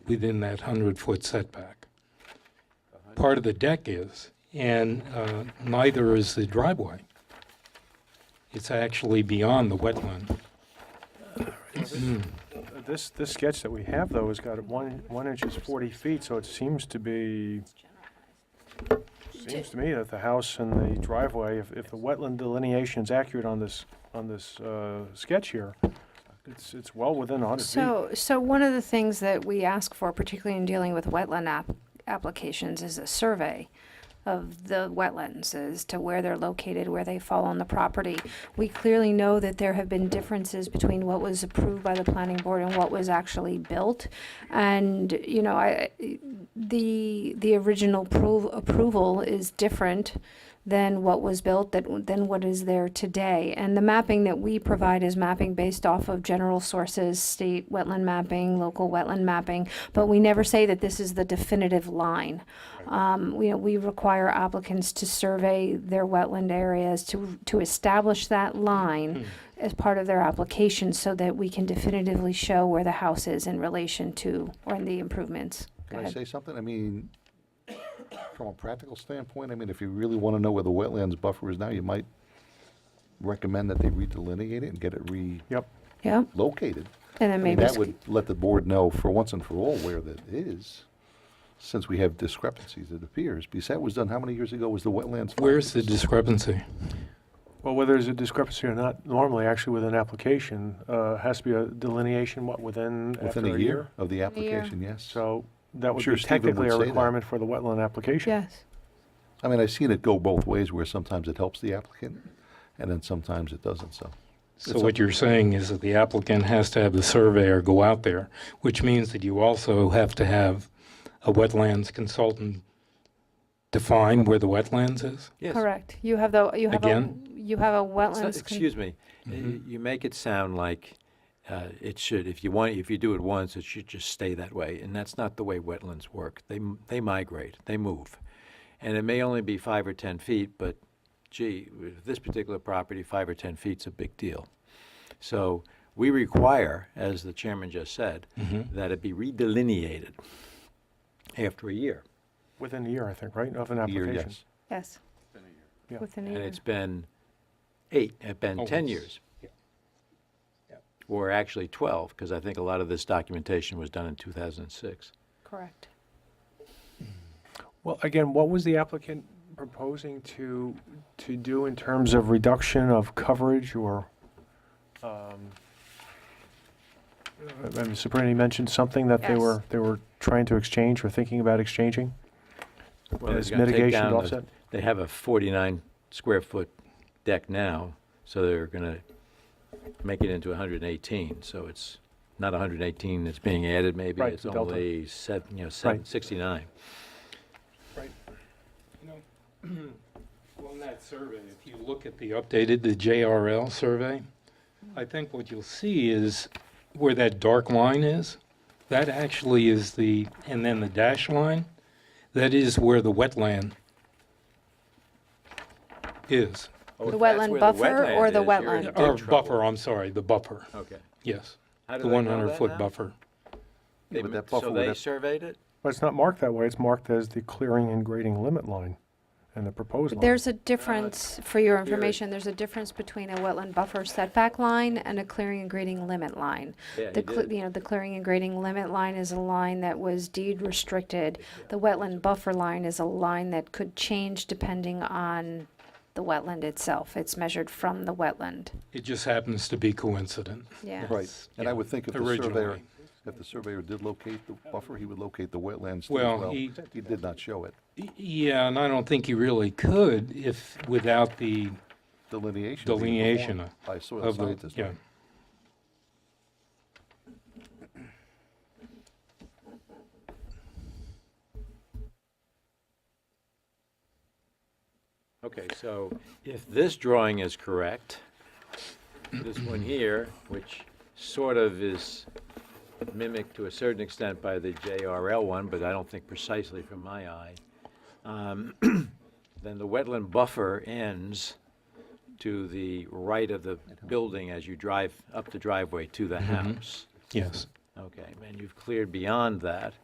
within that 100-foot setback. Part of the deck is, and uh, neither is the driveway. It's actually beyond the wetland. This, this sketch that we have, though, has got one, one inch is 40 feet, so it seems to be, seems to me that the house and the driveway, if, if the wetland delineation is accurate on this, on this uh, sketch here, it's, it's well within 100 feet. So, so one of the things that we ask for, particularly in dealing with wetland app, applications, is a survey of the wetlands as to where they're located, where they fall on the property. We clearly know that there have been differences between what was approved by the planning board and what was actually built. And, you know, I, the, the original prov- approval is different than what was built, that, than what is there today. And the mapping that we provide is mapping based off of general sources, state wetland mapping, local wetland mapping, but we never say that this is the definitive line. Um, we, we require applicants to survey their wetland areas to, to establish that Hmm. line as part of their application so that we can definitively show where the house is in relation to, or in the improvements. Go Can I ahead. say something? I mean, from a practical standpoint, I mean, if you really want to know where the wetlands buffer is now, you might recommend that they redelineate it and get it Yep, Yeah, relocated. and I then mean, maybe, that sc- would let the board know for once and for all where that is, since we have discrepancies, it appears. Because that was done, how many years ago was the wetlands? file? Where's the discrepancy? well, whether there's a discrepancy or not, normally, actually, with an application, uh, has to be a delineation, what, within, Within after a year of the application, yes. So that would Sure, be Stephen technically would a say that. requirement for the wetland application. yes. I mean, I've seen it go both ways, where sometimes it helps the applicant, and then sometimes it doesn't, so. So It's what you're saying is that the applicant has to have the surveyor go out there, which means that you also have to have a wetlands consultant define where the wetlands is? Yes. Correct. You have the, you have a, Again? you have a It's not- wetlands. con- Excuse me, Uh, Mm-hmm. you make it sound like uh, it should, if you want, if you do it once, it should just stay that way, and that's not the way wetlands work. They, m- they migrate, they move. And it may only be five or 10 feet, but gee, with this particular property, five or 10 feet's a big deal. So we require, as the chairman just said, that it be redelineated after a year. Within a year, I think, right, of an a year, application? yes. Yes. Yeah. Within a And year. it's been eight, it's been 10 Almost. years. Yeah. Yeah. Or actually 12, because I think a lot of this documentation was done in 2006. Correct. Well, again, what was the applicant proposing to, to do in terms of reduction of coverage or? um, I mean, Sabrina mentioned something that they Yes. were, they were trying to exchange or thinking about exchanging? Well, As they're gonna take mitigation down to the- offset? They have a 49 square foot deck now, so they're going to make it into 118. So it's not 118 that's being added, maybe. Right, It's the delta. only seven, you know, seven- Right. 69. Well, in that survey, if you look at the updated, the JRL survey, I think what you'll see is where that dark line is, that actually is the, and then the dash line, that is where the wetland is. The wetland buffer or the wetland? Or buffer, I'm sorry, the buffer, Okay. yes. Oh. How do The they know that 100-foot now? buffer. They Yeah, but ma- that buffer So would they have- surveyed it? But it's not marked that way, it's marked as the clearing and grading limit line and the proposed line. There's a difference, for your information, there's a difference between a wetland buffer setback line and a clearing and grading limit line. Yeah, The, he cle- did. you know, the clearing and grading limit line is a line that was deed restricted. The wetland buffer line is a line that could change depending on the wetland itself. It's measured from the wetland, It just happens to be coincident. yeah. Right, and I would think if the surveyor, Originally. if the surveyor did locate the buffer, he would locate the wetlands too as Well, well. he- He did not show it, Y- Yeah, and I don't think you really could if, without the, delineation. being Delineation performed By soil of the, scientists. yeah. Okay, so if this drawing is correct, this one here, which sort of is mimicked to a certain extent by the JRL one, but I don't think precisely from my eye, um, then the wetland buffer ends to the right of the building as you drive up the driveway to the house. Yes. Okay, and you've cleared beyond that,